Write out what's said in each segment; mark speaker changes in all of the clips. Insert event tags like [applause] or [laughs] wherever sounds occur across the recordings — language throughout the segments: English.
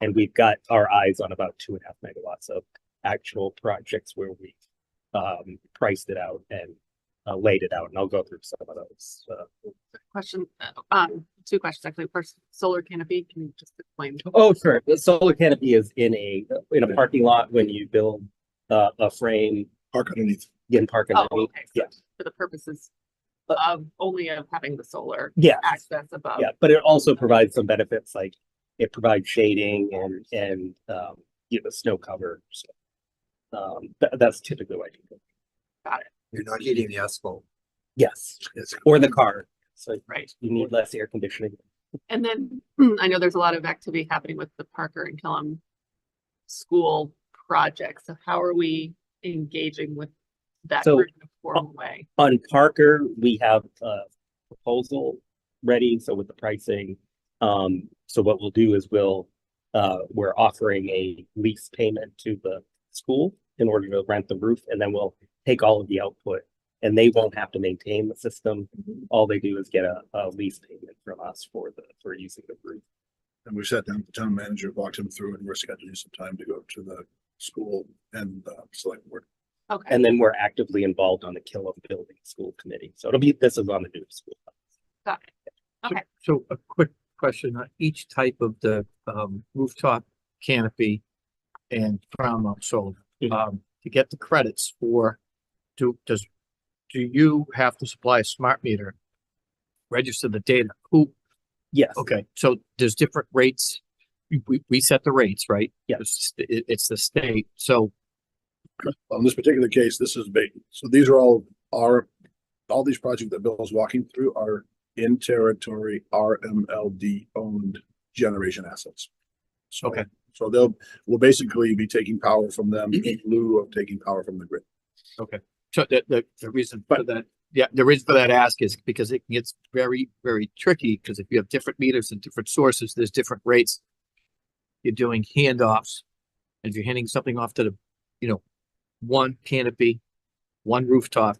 Speaker 1: And we've got our eyes on about two and a half megawatts of actual projects where we um priced it out and uh, laid it out, and I'll go through some of those. Uh,
Speaker 2: Question, uh, um, two questions actually. First, solar canopy, can you just explain?
Speaker 1: Oh, sure. The solar canopy is in a, in a parking lot when you build uh, a frame,
Speaker 3: park underneath.
Speaker 1: you can park
Speaker 2: Oh,
Speaker 1: underneath.
Speaker 2: okay. so
Speaker 1: Yeah,
Speaker 2: For the purposes of only of having the solar
Speaker 1: yeah,
Speaker 2: access above.
Speaker 1: yeah. But it also provides some benefits, like it provides shading and, and, um, you know, snow cover. So, Um, tha- that's typically what I do.
Speaker 3: You're not heating the asphalt.
Speaker 1: Yes,
Speaker 3: It's
Speaker 1: or the car. So
Speaker 2: Right.
Speaker 1: you need less air conditioning.
Speaker 2: And then [clears throat] I know there's a lot of activity happening with the Parker and Killam school project. So how are we engaging with that
Speaker 1: So- oh.
Speaker 2: group in a formal way?
Speaker 1: On Parker, we have a proposal ready, so with the pricing. Um, so what we'll do is we'll, uh, we're offering a lease payment to the school in order to rent the roof, and then we'll take all of the output. And they won't have to maintain the system. All they do is get a, a lease payment from us for the, for using the roof.
Speaker 3: And we sat down, with the town manager walked him through and we're scheduling some time to go to the school and uh select board.
Speaker 2: Okay,
Speaker 1: And then we're actively involved on the Killam Building School Committee. So it'll be, this is on the new school.
Speaker 2: got it. Okay.
Speaker 4: So a quick question, on each type of the um rooftop canopy and crown mount solar,
Speaker 1: Mhm.
Speaker 4: um, to get the credits for, do, does, do you have to supply a smart meter? Register the data, who,
Speaker 1: Yes.
Speaker 4: okay, so there's different rates, we, we, we set the rates, right?
Speaker 1: Yeah.
Speaker 4: It's, it, it's the state, so,
Speaker 3: On this particular case, this is big. So these are all our, all these projects that Bill's walking through are in territory RMLD owned generation assets. So,
Speaker 4: Okay.
Speaker 3: so they'll, we'll basically be taking power from them in lieu of taking power from the grid.
Speaker 4: so the, the, the reason for that, yeah, the reason for that ask is because it gets very, very tricky, because if you have different meters and different sources, there's different rates. You're doing handoffs, and if you're handing something off to the, you know, one canopy, one rooftop,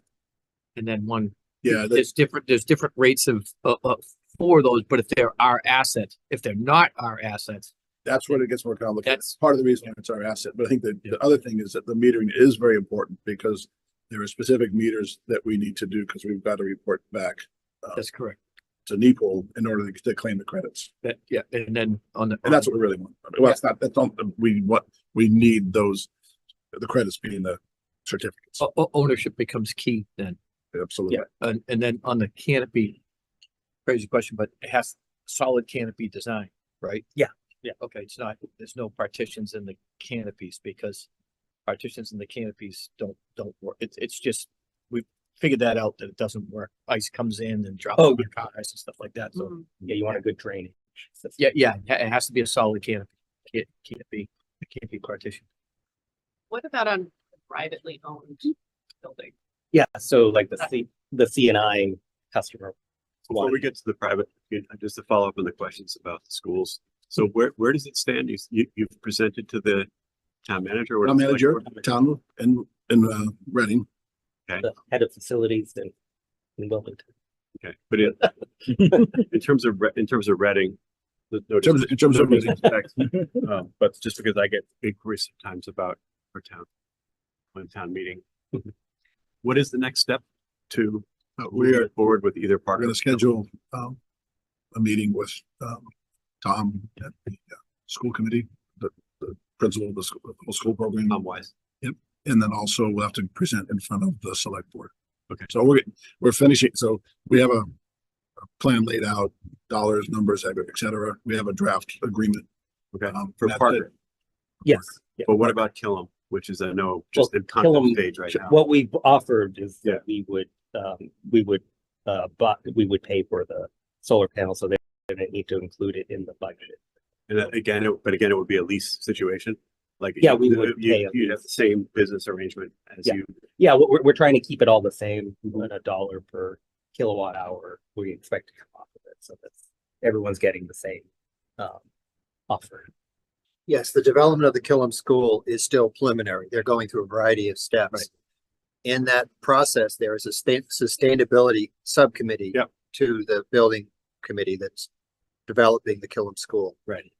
Speaker 4: and then one,
Speaker 3: Yeah, that's-
Speaker 4: there's different, there's different rates of, of, of- for those, but if they're our assets, if they're not our assets,
Speaker 3: that's where it gets more complicated.
Speaker 4: That's-
Speaker 3: That's part of the reason why it's our asset, but I think that the other thing is that the metering is very important because there are specific meters that we need to do because we've got to report back
Speaker 4: that's correct.
Speaker 3: to NEPL in order to claim the credits.
Speaker 4: That, yeah, and then on the.
Speaker 3: And that's what we really want. Well, it's not, that's not, we, what, we need those, the credits being the certificates.
Speaker 4: O- o- ownership becomes key then.
Speaker 3: Absolutely.
Speaker 4: And, and then on the canopy, crazy question, but it has solid canopy design, right?
Speaker 1: Yeah, yeah.
Speaker 4: Okay, it's not, there's no partitions in the canopies because partitions in the canopies don't, don't work. It's, it's just, we figured that out that it doesn't work. Ice comes in and drops
Speaker 1: Oh, Mm-hmm.
Speaker 4: on your cars and stuff like that. So,
Speaker 2: Mhm.
Speaker 1: Yeah, you want a good drainage. system.
Speaker 4: yeah, yeah, it ha- it has to be a solid canopy. Can't, can't be, it can't be partition.
Speaker 2: What about on privately owned building?
Speaker 1: Yeah, so like the C, the C and I customer.
Speaker 5: Uh, Before we
Speaker 1: one.
Speaker 5: get to the private, you know, just to follow up on the questions about the schools. So where, where does it stand? You, s- you, you've presented to the town manager? or
Speaker 3: Town
Speaker 5: the select
Speaker 3: manager,
Speaker 5: board?
Speaker 3: town and, and, uh, Reading.
Speaker 1: The head of facilities in, in Wilmington.
Speaker 5: Okay, but in,
Speaker 3: [laughs]
Speaker 5: in terms of, Re- in terms of Reading. the- no
Speaker 3: In terms,
Speaker 5: dis-
Speaker 3: in terms
Speaker 5: no
Speaker 3: of, [laughs]
Speaker 5: disrespect, um, But just because I get inquiries sometimes about our town, one town meeting. What is the next step to
Speaker 3: Uh, we are,
Speaker 5: move forward with either
Speaker 3: We're
Speaker 5: partner?
Speaker 3: gonna schedule, um, a meeting with, um, Tom at the uh, school committee, the, the principal of the school, the school program.
Speaker 5: Tom Wise.
Speaker 3: And then also we'll have to present in front of the select board.
Speaker 5: Okay.
Speaker 3: So we're, we're finishing, so we have a a plan laid out, dollars, numbers, et cetera. We have a draft agreement.
Speaker 5: Okay,
Speaker 3: Um,
Speaker 5: for
Speaker 3: that's it.
Speaker 5: Parker.
Speaker 1: Yes. yeah.
Speaker 5: But what about Killam, which is, I know, just in concept
Speaker 1: Killam-
Speaker 5: stage right now?
Speaker 1: What we've offered is
Speaker 5: Yeah.
Speaker 1: that we would, um, we would, uh, but we would pay for the solar panel, so they didn't need to include it in the budget.
Speaker 5: And that- again, it- but again, it would be a lease situation, like.
Speaker 1: Yeah, we
Speaker 5: you-
Speaker 1: would pay
Speaker 5: You,
Speaker 1: a
Speaker 5: you'd have the same business arrangement as
Speaker 1: Yeah.
Speaker 5: you,
Speaker 1: Yeah, we're, we're- we're trying to keep it all the same,
Speaker 5: Mm-hmm.
Speaker 1: at a dollar per kilowatt hour, we expect to come off of it, so that's, everyone's getting the same, um, offer.
Speaker 6: Yes, the development of the Killam School is still preliminary. They're going through a variety of
Speaker 4: Right.
Speaker 6: steps. In that process, there is a stain- sustainability subcommittee
Speaker 5: Yep.
Speaker 6: to the building committee that's developing the Killam School.
Speaker 5: Right.